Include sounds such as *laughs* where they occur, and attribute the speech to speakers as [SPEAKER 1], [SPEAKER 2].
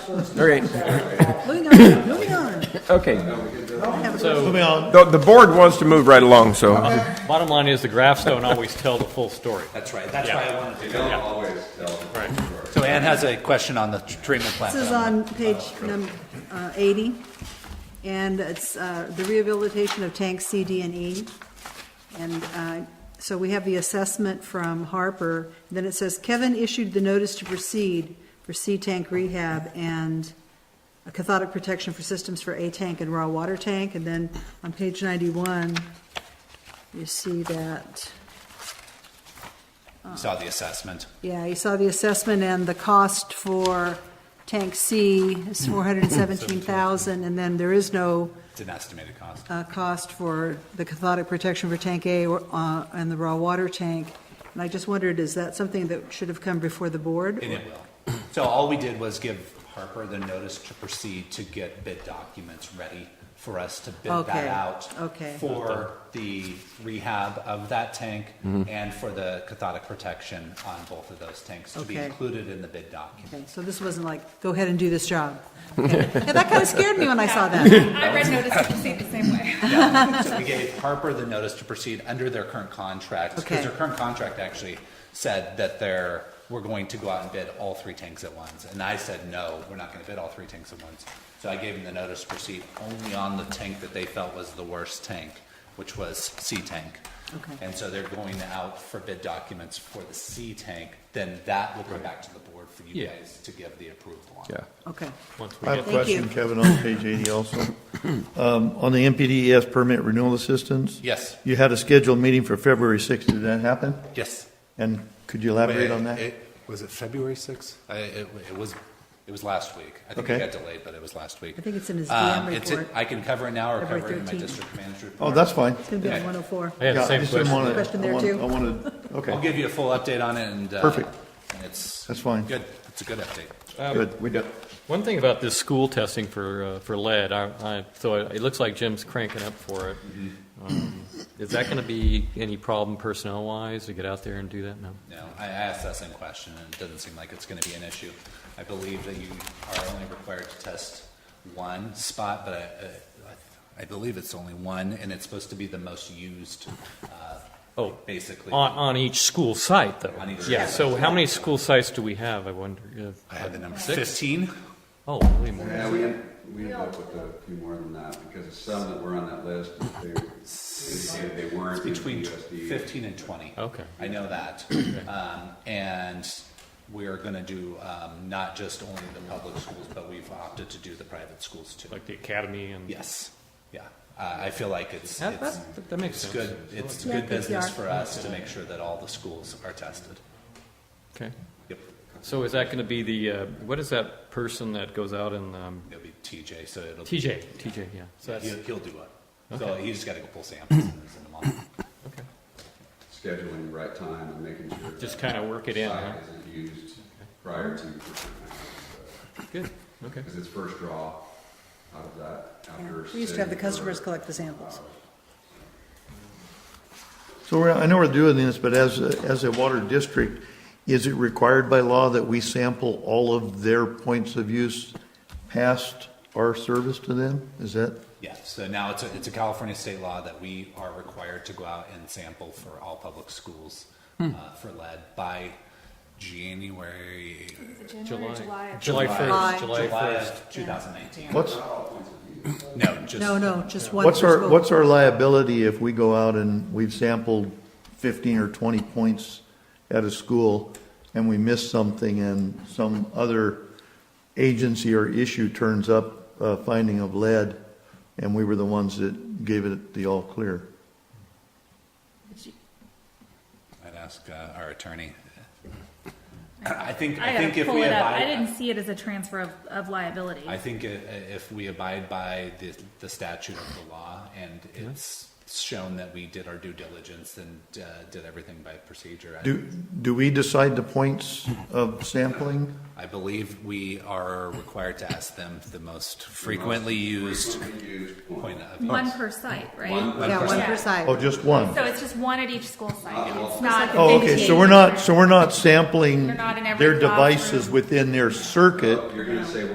[SPEAKER 1] All right,
[SPEAKER 2] Moving on, moving on.
[SPEAKER 1] okay.
[SPEAKER 3] So
[SPEAKER 4] Moving on,
[SPEAKER 1] The, the board wants to move right along, so.
[SPEAKER 3] bottom line is the graphs don't always tell the full story.
[SPEAKER 5] That's right, that's
[SPEAKER 3] Yeah.
[SPEAKER 5] why I wanted to.
[SPEAKER 6] They don't always tell.
[SPEAKER 3] Right.
[SPEAKER 5] So Ann has a question on the tr- treatment plant.
[SPEAKER 2] This is
[SPEAKER 5] that I'm-
[SPEAKER 2] on page number 80, and it's uh, the rehabilitation of tanks C, D, and E. And uh, so we have the assessment from Harper, then it says Kevin issued the notice to proceed for C tank rehab and a cathodic protection for systems for A tank and raw water tank, and then on page 91, you see that,
[SPEAKER 5] You Saw the assessment.
[SPEAKER 2] yeah, you saw the assessment and the cost for tank C is
[SPEAKER 4] Hmm.
[SPEAKER 2] 417,000, and then there is no
[SPEAKER 5] It's an estimated cost.
[SPEAKER 2] uh, cost for the cathodic protection for tank A or, uh, and the raw water tank. And I just wondered, is that something that should have come before the board?
[SPEAKER 5] And it will. So all we did was give Harper the notice to proceed to get bid documents ready for us to bid that
[SPEAKER 2] Okay,
[SPEAKER 5] out.
[SPEAKER 2] okay.
[SPEAKER 5] For the rehab of that tank and for the cathodic protection on both of those tanks to be
[SPEAKER 2] Okay.
[SPEAKER 5] included in the bid document.
[SPEAKER 2] Okay, So this wasn't like, go ahead and do this
[SPEAKER 4] *laughs*
[SPEAKER 2] job. Okay. Yeah, that kind of scared me when I saw that.
[SPEAKER 7] I read notice to proceed the same way.
[SPEAKER 5] Yeah. So we gave Harper the notice to proceed under their current contract.
[SPEAKER 2] Okay.
[SPEAKER 5] Because their current contract actually said that they're, we're going to go out and bid all three tanks at once. And I said, no, we're not gonna bid all three tanks at once. So I gave them the notice to proceed only on the tank that they felt was the worst tank, which was C tank.
[SPEAKER 2] Okay.
[SPEAKER 5] And so they're going out for bid documents for the C tank, then that will go back to the board for you
[SPEAKER 3] Yeah.
[SPEAKER 5] guys to give the approval on.
[SPEAKER 1] Yeah.
[SPEAKER 2] Okay,
[SPEAKER 3] Once we
[SPEAKER 4] I have
[SPEAKER 3] get,
[SPEAKER 4] a
[SPEAKER 2] Thank
[SPEAKER 4] question,
[SPEAKER 2] you.
[SPEAKER 4] Kevin, on page 80 also. Um, On the MPDES permit renewal assistance?
[SPEAKER 5] Yes.
[SPEAKER 4] You had a scheduled meeting for February 6th, did that happen?
[SPEAKER 5] Yes.
[SPEAKER 4] And could you elaborate on that?
[SPEAKER 5] It- Was it February 6th? I- It it was, it was last week. I think it
[SPEAKER 4] Okay.
[SPEAKER 5] got delayed, but it was last week.
[SPEAKER 2] I think it's in his
[SPEAKER 5] Um,
[SPEAKER 2] DM
[SPEAKER 5] it's in-
[SPEAKER 2] report.
[SPEAKER 5] I can cover it now or
[SPEAKER 2] February
[SPEAKER 5] cover it in my
[SPEAKER 2] 13th.
[SPEAKER 5] district manager
[SPEAKER 4] Oh,
[SPEAKER 5] report.
[SPEAKER 4] that's fine.
[SPEAKER 2] it's going to be on 104.
[SPEAKER 3] I had the
[SPEAKER 4] Yeah, I
[SPEAKER 3] same
[SPEAKER 4] just didn't
[SPEAKER 3] question.
[SPEAKER 4] wanna-
[SPEAKER 2] Question
[SPEAKER 4] I
[SPEAKER 2] there,
[SPEAKER 4] wanna-
[SPEAKER 2] too.
[SPEAKER 4] I wanted,
[SPEAKER 5] I'll
[SPEAKER 4] okay,
[SPEAKER 5] give you a full update on it and. uh,
[SPEAKER 4] Perfect.
[SPEAKER 5] and It's.
[SPEAKER 4] That's fine.
[SPEAKER 5] Good. It's a good update.
[SPEAKER 4] good, we got,
[SPEAKER 3] One thing about this school testing for, uh, for lead, I, I, so it it looks like Jim's cranking up for it. Um, Is that gonna be any problem personnel-wise to get out there and do that? No?
[SPEAKER 5] No, I asked that same question and it doesn't seem like it's gonna be an issue. I believe that you are only required to test one spot, but I- uh, I, I believe it's only one and it's supposed to be the most used, uh,
[SPEAKER 3] Oh,
[SPEAKER 5] basically.
[SPEAKER 3] on, on each school site, though?
[SPEAKER 5] On each
[SPEAKER 3] Yeah,
[SPEAKER 5] school
[SPEAKER 3] so how many school sites do we have, I wonder? Yeah.
[SPEAKER 5] I have the number
[SPEAKER 3] Six?
[SPEAKER 5] fifteen.
[SPEAKER 3] Oh, way more.
[SPEAKER 6] Yeah, we, end- we ended up with a few more than that, because some that were on that list, they, indicated they weren't in
[SPEAKER 5] between
[SPEAKER 6] the USD.
[SPEAKER 5] fifteen and twenty.
[SPEAKER 3] Okay.
[SPEAKER 5] I
[SPEAKER 3] *clears throat*
[SPEAKER 5] know that. Um, and we're gonna do, um, not just only the public schools, but we've opted to do the private schools too.
[SPEAKER 3] Like the academy and?
[SPEAKER 5] Yes, yeah. Uh, I feel like it's,
[SPEAKER 3] That,
[SPEAKER 5] it's,
[SPEAKER 3] that- that makes
[SPEAKER 5] it's
[SPEAKER 3] sense.
[SPEAKER 5] good, it's
[SPEAKER 2] Yeah,
[SPEAKER 5] good
[SPEAKER 2] good
[SPEAKER 5] business
[SPEAKER 2] PR.
[SPEAKER 5] for us to make sure that all the schools are tested.
[SPEAKER 3] Okay.
[SPEAKER 5] Yep,
[SPEAKER 3] So is that going to be the, uh, what is that person that goes out and, um,
[SPEAKER 5] it'll be TJ, so it'll. be-
[SPEAKER 3] TJ, TJ, yeah. So that's,
[SPEAKER 5] He'll, he'll do it. So he just gotta go pull samples and send them on.
[SPEAKER 3] okay.
[SPEAKER 6] Scheduling the right time and making sure.
[SPEAKER 3] Just
[SPEAKER 6] that
[SPEAKER 3] kinda work it in,
[SPEAKER 6] site
[SPEAKER 3] huh?
[SPEAKER 6] Isn't used prior to,
[SPEAKER 3] Good, okay.
[SPEAKER 6] because it's first draw out of that after.
[SPEAKER 2] We used to have the
[SPEAKER 6] sitting for-
[SPEAKER 2] customers collect the samples.
[SPEAKER 4] so we're, I know we're doing this, but as, a- as a water district, is it required by law that we sample all of their points of use past our service to them? Is that?
[SPEAKER 5] Yeah, so now it's a, it's a California state law that we are required to go out and sample for all public schools uh, for lead by January.
[SPEAKER 3] July. July.
[SPEAKER 2] July.
[SPEAKER 3] 1st, July
[SPEAKER 5] July
[SPEAKER 3] 1st.
[SPEAKER 5] of 2019.
[SPEAKER 4] What's,
[SPEAKER 5] No, just.
[SPEAKER 2] No, no, just one per
[SPEAKER 4] what's our,
[SPEAKER 2] school.
[SPEAKER 4] what's our liability if we go out and we've sampled fifteen or twenty points at a school and we miss something and some other agency or issue turns up a finding of lead and we were the ones that gave it the all clear?
[SPEAKER 5] I'd ask uh, our attorney. I think,
[SPEAKER 7] I
[SPEAKER 5] I think
[SPEAKER 7] gotta
[SPEAKER 5] if
[SPEAKER 7] pull
[SPEAKER 5] we
[SPEAKER 7] it up. I didn't
[SPEAKER 5] abide,
[SPEAKER 7] see it as a transfer of, of liability.
[SPEAKER 5] I think i- if we abide by the, the statute of the law and it's shown that we did our due diligence and uh, did everything by procedure. I-
[SPEAKER 4] Do, do we decide the points of sampling?
[SPEAKER 5] I believe we are required to ask them the most frequently used point of.
[SPEAKER 7] One per site, right?
[SPEAKER 2] Yeah, one per
[SPEAKER 7] Yeah.
[SPEAKER 2] site.
[SPEAKER 4] Oh, just one?
[SPEAKER 7] So it's just one at each school site. It's not.
[SPEAKER 4] Oh, okay, so we're not, so we're not sampling
[SPEAKER 7] They're not in every
[SPEAKER 4] their
[SPEAKER 7] classroom.
[SPEAKER 4] devices within their circuit.
[SPEAKER 6] You're gonna say,